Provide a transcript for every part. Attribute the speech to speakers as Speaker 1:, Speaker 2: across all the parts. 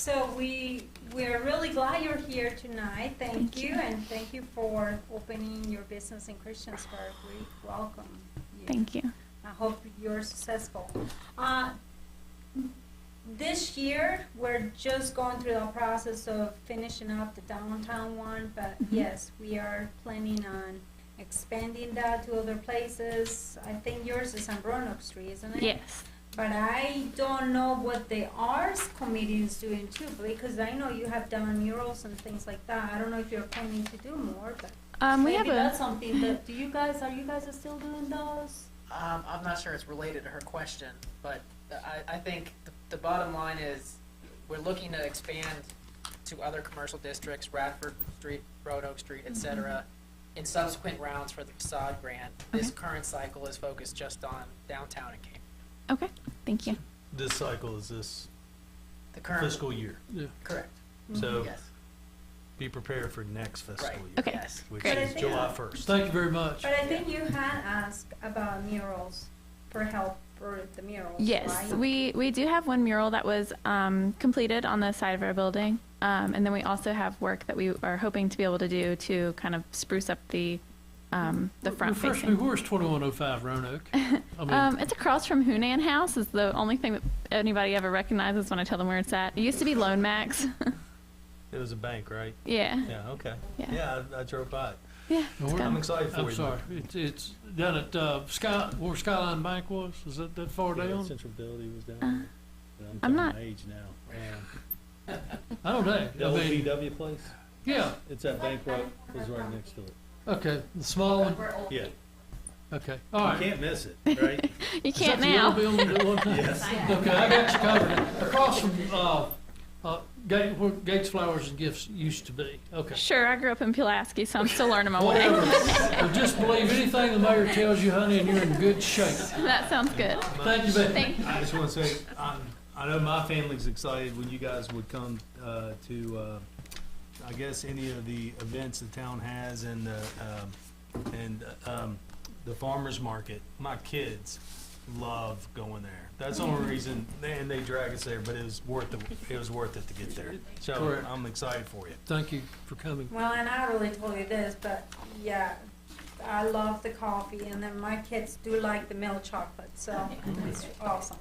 Speaker 1: So we, we're really glad you're here tonight. Thank you, and thank you for opening your business in Christiansburg. We welcome you.
Speaker 2: Thank you.
Speaker 1: I hope you're successful. Uh, This year, we're just going through the process of finishing up the downtown one, but
Speaker 2: Mhm.
Speaker 1: yes, we are planning on expanding that to other places. I think yours is on Roanoke Street, isn't it?
Speaker 2: Yes.
Speaker 1: But I don't know what the arts committee is doing too, because I know you have done murals and things like that. I don't know if you're planning to do more, but
Speaker 2: Um, we have
Speaker 1: maybe that's
Speaker 2: a
Speaker 1: something that, do you guys, are you guys still doing those?
Speaker 3: Um, I'm not sure it's related to her question, but I, I think the, the bottom line is, we're looking to expand to other commercial distrticks, Radford Street, Road Oak Street,
Speaker 2: Mm-hmm.
Speaker 3: et cetera, in subsequent rounds for the facade grant. This
Speaker 2: Okay.
Speaker 3: current cycle is focused just on downtown and Cape.
Speaker 2: okay. Thank you.
Speaker 4: This cycle is this
Speaker 3: The current,
Speaker 4: fiscal year,
Speaker 3: correct,
Speaker 4: so
Speaker 3: yes,
Speaker 4: be prepared for next fiscal
Speaker 3: Right.
Speaker 4: year,
Speaker 2: Okay.
Speaker 3: yes.
Speaker 4: which
Speaker 1: But I
Speaker 4: is
Speaker 1: think-
Speaker 4: July first. Thank you very much.
Speaker 1: But I think you had asked about murals for help for the murals,
Speaker 2: Yes,
Speaker 1: right?
Speaker 2: we, we do have one mural that was um, completed on the side of our building. Um, and then we also have work that we are hoping to be able to do to kind of spruce up the, um, the front
Speaker 5: Refresh me,
Speaker 2: facing.
Speaker 5: where's 2105 Roanoke? I mean,
Speaker 2: Um, it's across from Hunan House is the only thing that anybody ever recognizes when I tell them where it's at. It used to be Lone Max.
Speaker 4: It was a bank, right?
Speaker 2: yeah.
Speaker 4: Yeah, okay.
Speaker 2: Yeah.
Speaker 4: Yeah, I I drove by. it.
Speaker 2: Yeah.
Speaker 5: No,
Speaker 2: it's
Speaker 5: we're-
Speaker 4: I'm
Speaker 2: gone.
Speaker 4: excited for you.
Speaker 5: I'm sorry, it's, it's down at, uh, Sky, where Skyline Bank was, is that, that far
Speaker 6: Yeah,
Speaker 5: down?
Speaker 6: Central Building was down there. But
Speaker 2: I'm
Speaker 6: I'm
Speaker 2: not-
Speaker 6: talking age now.
Speaker 5: I don't know,
Speaker 6: The
Speaker 5: I
Speaker 6: old
Speaker 5: mean,
Speaker 6: VW place,
Speaker 5: yeah,
Speaker 6: it's that bank right, is right next to it.
Speaker 5: okay, the small one,
Speaker 6: Yeah,
Speaker 5: okay, all
Speaker 6: you
Speaker 5: right.
Speaker 6: can't miss it, right?
Speaker 2: You
Speaker 5: Is that
Speaker 2: can't
Speaker 5: the yellow
Speaker 2: now.
Speaker 5: building at one time?
Speaker 6: Yes.
Speaker 5: Okay, I got you covered, across from, uh, uh, Gates, where Gates Flowers and Gifts used to be, okay.
Speaker 2: Sure, I grew up in Pulaski, so I'm still learning my way.
Speaker 5: Whatever, Well, just believe anything the mayor tells you, honey, and you're in good shape.
Speaker 2: That sounds good.
Speaker 5: Thank you, Becky.
Speaker 2: Thank
Speaker 4: I just want to say, um, I know my family's excited when you guys would come uh, to, uh, I guess, any of the events the town has and the, um, and um, the farmer's market. My kids love going there. That's the only reason, and they drag us there, but it was worth it, it was worth it to get there. So
Speaker 5: Correct.
Speaker 4: I'm excited for you.
Speaker 5: Thank you for coming.
Speaker 1: Well, and I really told you this, but yeah, I love the coffee, and then my kids do like the milk chocolate, so it's awesome.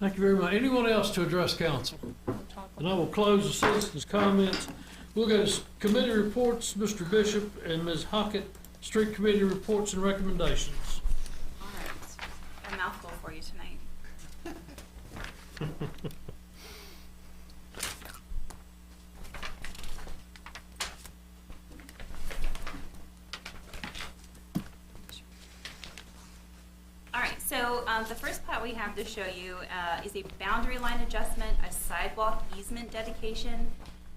Speaker 5: Thank you very much. Anyone else to address council? And I will close the citizens' comments. We'll go to committee reports, Mr. Bishop and Ms. Hockett, street committee reports and recommendations.
Speaker 7: All right, a mouthful for you tonight. All right, so um, the first plot we have to show you uh, is a boundary line adjustment, a sidewalk easement dedication,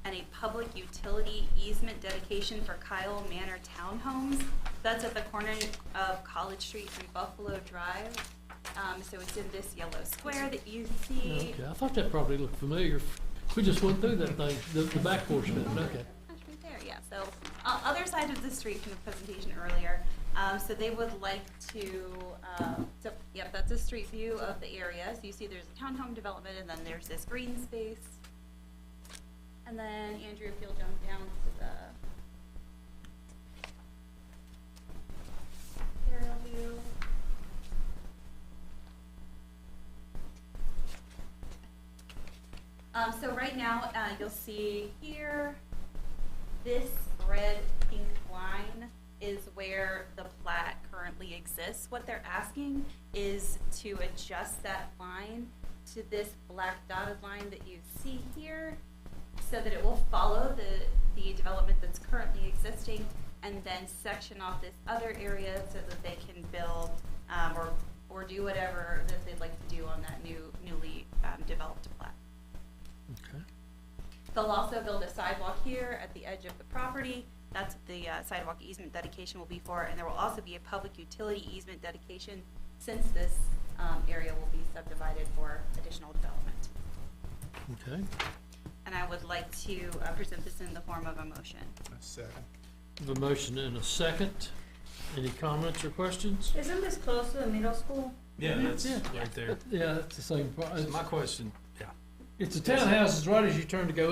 Speaker 7: and a public utility easement dedication for Kyle Manor Townhomes. That's at the corner of College Street and Buffalo Drive. Um, So it's in this yellow square that you see.
Speaker 5: Okay, I thought that probably looked familiar. We just went through that thing, the, the back portion of it, okay.
Speaker 7: That's right there, yeah. So, uh, other side of the street from the presentation earlier. Um, so they would like to, um, so, yep, that's a street view of the area. So you see there's a townhome development and then there's this green space. And then Andrew, if you'll jump down to the aerial view. Um, so right now, uh, you'll see here, this red pink line is where the plat currently exists. What they're asking is to adjust that line to this black dotted line that you see here so that it will follow the, the development that's currently existing and then section off this other area so that they can build um, or, or do whatever that they'd like to do on that new, newly um, developed plat.
Speaker 5: Okay.
Speaker 7: They'll also build a sidewalk here at the edge of the property. That's what the uh, sidewalk easement dedication will be for, and there will also be a public utility easement dedication since this um, area will be subdivided for additional development.
Speaker 5: Okay.
Speaker 7: And I would like to uh, present this in the form of a motion.
Speaker 5: The motion in a second. Any comments or questions?
Speaker 1: Isn't this close to the middle school?
Speaker 4: Yeah, that's
Speaker 5: Yeah.
Speaker 4: right there.
Speaker 5: Yeah, that's the same part.
Speaker 4: So my question, yeah,
Speaker 5: It's the townhouses right as you turn to go